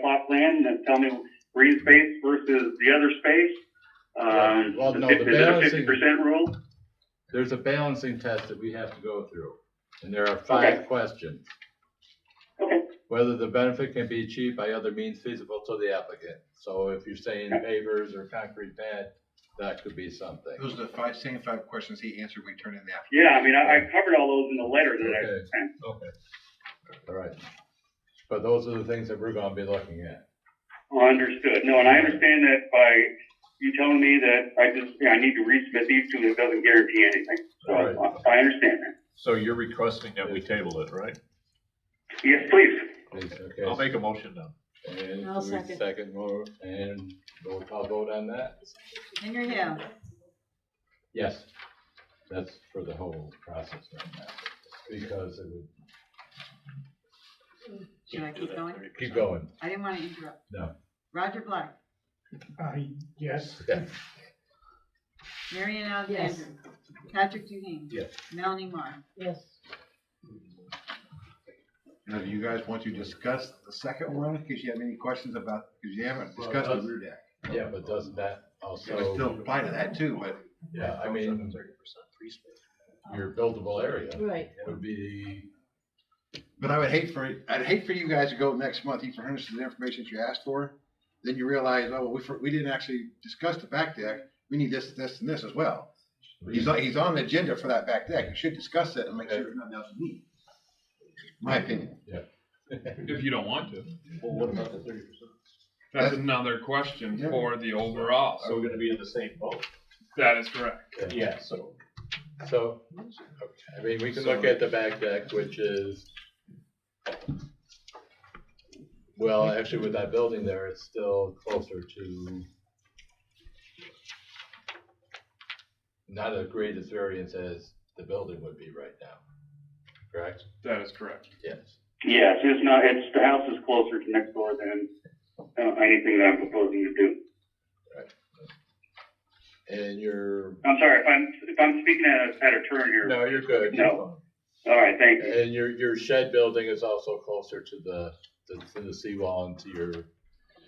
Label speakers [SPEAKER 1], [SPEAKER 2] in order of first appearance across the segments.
[SPEAKER 1] plot plan and tell me green space versus the other space? Um,
[SPEAKER 2] Well, no,
[SPEAKER 1] is
[SPEAKER 2] the
[SPEAKER 1] it a
[SPEAKER 2] balancing-
[SPEAKER 1] fifty percent rule?
[SPEAKER 2] There's a balancing test that we have to go through, and there are five questions.
[SPEAKER 1] Okay.
[SPEAKER 2] Whether the benefit can be achieved by other means feasible to the applicant. So if you're saying pavers or concrete pad, that could be something.
[SPEAKER 3] Those are the five, same five questions he answered when he turned in the application.
[SPEAKER 1] Yeah, I mean, I, I covered all those in the letter that I
[SPEAKER 2] Okay.
[SPEAKER 1] sent.
[SPEAKER 2] Okay. All right. But those are the things that we're gonna be looking at.
[SPEAKER 1] Understood. No, and I understand that by you telling me that I just, I need to resubmit these two, it doesn't guarantee anything. So uh,
[SPEAKER 2] All right.
[SPEAKER 1] I I understand that.
[SPEAKER 4] So you're requesting that we table it, right?
[SPEAKER 1] Yes, please.
[SPEAKER 2] Please,
[SPEAKER 4] I'll
[SPEAKER 2] okay.
[SPEAKER 4] make a motion now.
[SPEAKER 2] And
[SPEAKER 5] I'll
[SPEAKER 2] we
[SPEAKER 5] second.
[SPEAKER 2] Second more, and roll call vote on that?
[SPEAKER 5] Henry Hill,
[SPEAKER 2] Yes. That's for the whole process right now, because it would
[SPEAKER 5] should I keep going?
[SPEAKER 2] keep going.
[SPEAKER 5] I didn't want to interrupt.
[SPEAKER 2] No.
[SPEAKER 5] Roger Black,
[SPEAKER 6] Uh, yes.
[SPEAKER 2] Yeah.
[SPEAKER 5] Marion
[SPEAKER 7] Yes.
[SPEAKER 5] Alexander, Patrick Duhane.
[SPEAKER 2] Yes.
[SPEAKER 5] Melanie Moore.
[SPEAKER 7] Yes.
[SPEAKER 3] Now, do you guys want to discuss the second one? Because you have any questions about, because you haven't discussed the rear deck.
[SPEAKER 2] Yeah, but doesn't that
[SPEAKER 3] It would still
[SPEAKER 2] also,
[SPEAKER 3] apply to that too, but
[SPEAKER 2] yeah, I mean, your buildable area
[SPEAKER 7] Right.
[SPEAKER 2] would be,
[SPEAKER 3] But I would hate for, I'd hate for you guys to go next month, you furnish the information that you asked for, then you realize, oh, we, for- we didn't actually discuss the back deck, we need this, this, and this as well. He's, on- he's on the agenda for that back deck, you should discuss it and make sure there's nothing else you need. My opinion.
[SPEAKER 8] If you don't want to.
[SPEAKER 4] Well, what about the thirty percent?
[SPEAKER 8] That's another question
[SPEAKER 3] Yeah.
[SPEAKER 8] for the overall.
[SPEAKER 4] So we're gonna be in the same boat?
[SPEAKER 8] That is correct.
[SPEAKER 4] Yeah, so.
[SPEAKER 2] so, I mean, we can look at the back deck, which is, well, actually with that building there, it's still closer to not as great as variance as the building would be right now, correct?
[SPEAKER 8] That is correct.
[SPEAKER 2] Yes.
[SPEAKER 1] Yes, it's not, it's, the house is closer to next door than, uh, anything that I'm proposing to do.
[SPEAKER 2] And you're,
[SPEAKER 1] I'm sorry, if I'm, if I'm speaking at a, at a turn here.
[SPEAKER 2] no, you're good.
[SPEAKER 1] No. All right, thank you.
[SPEAKER 2] And your, your shed building is also closer to the, to- to the seawall and to your,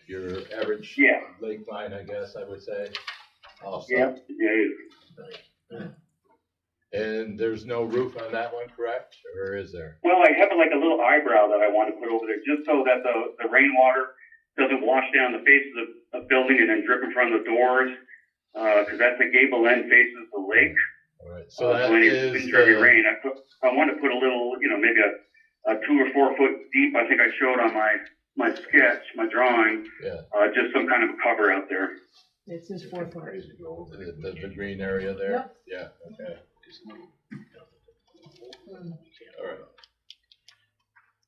[SPEAKER 2] your average
[SPEAKER 1] Yeah.
[SPEAKER 2] lake line, I guess I would say, also.
[SPEAKER 1] Yep, yeah,
[SPEAKER 2] And there's no roof on that one, correct? Or is there?
[SPEAKER 1] Well, I have like a little eyebrow that I want to put over there just so that the, the rainwater doesn't wash down the face of the of building and then drip in front of the doors. Because that's the gable end faces the lake.
[SPEAKER 2] All right, so
[SPEAKER 1] Uh,
[SPEAKER 2] that
[SPEAKER 1] when it-
[SPEAKER 2] is
[SPEAKER 1] when Derby
[SPEAKER 2] the,
[SPEAKER 1] rain. I put, I want to put a little, you know, maybe a, a two or four foot deep. I think I showed on my my sketch, my drawing.
[SPEAKER 2] Yeah.
[SPEAKER 1] Uh, just some kind of a cover out there.
[SPEAKER 7] It's his fourth part.
[SPEAKER 2] the, the- the green area there?
[SPEAKER 7] Yep.
[SPEAKER 2] Yeah, okay, all right.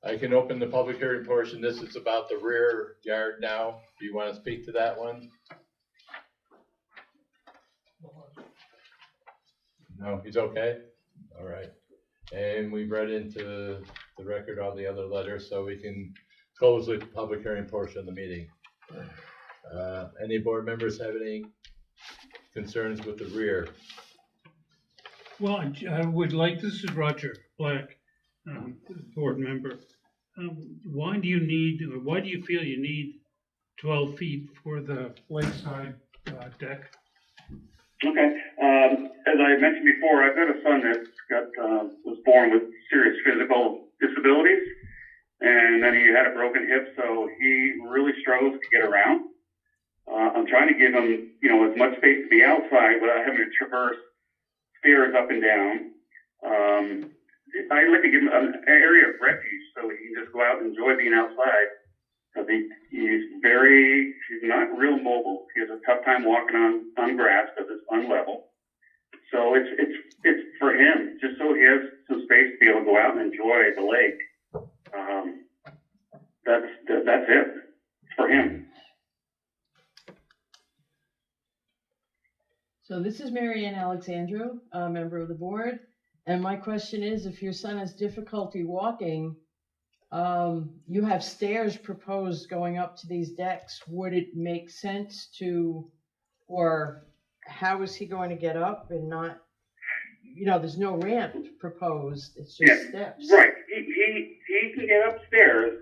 [SPEAKER 2] I can open the public hearing portion. This is about the rear yard now. Do you want to speak to that one? No, he's okay? All right. And we read into the record all the other letters, so we can close the public hearing portion of the meeting. Uh, Any board members have any concerns with the rear?
[SPEAKER 6] Well, I- I would like, this is Roger Black, um, board member. Um, Why do you need, or why do you feel you need twelve feet for the lakeside uh, deck?
[SPEAKER 1] Okay. Um, as I mentioned before, I've got a son that got uh, was born with serious physical disabilities, and then he had a broken hip, so he really struggles to get around. Uh, I'm trying to give him, you know, as much space to be outside without having to traverse stairs up and down. Um, I like to give him an area of refuge so he can just go out and enjoy being outside. I think he's very, he's not real mobile. He has a tough time walking on, on grass because it's unlevel. So it's, it's, it's for him, just so he has some space to be able to go out and enjoy the lake. Um, that's, that- that's it for him.
[SPEAKER 7] So this is Mary Ann Alexandro, a member of the board. And my question is, if your son has difficulty walking, um, you have stairs proposed going up to these decks. Would it make sense to, or how is he going to get up and not, you know, there's no ramp proposed, it's
[SPEAKER 1] Yeah,
[SPEAKER 7] just steps.
[SPEAKER 1] Right. He, he, he can get upstairs.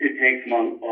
[SPEAKER 1] It takes him a, a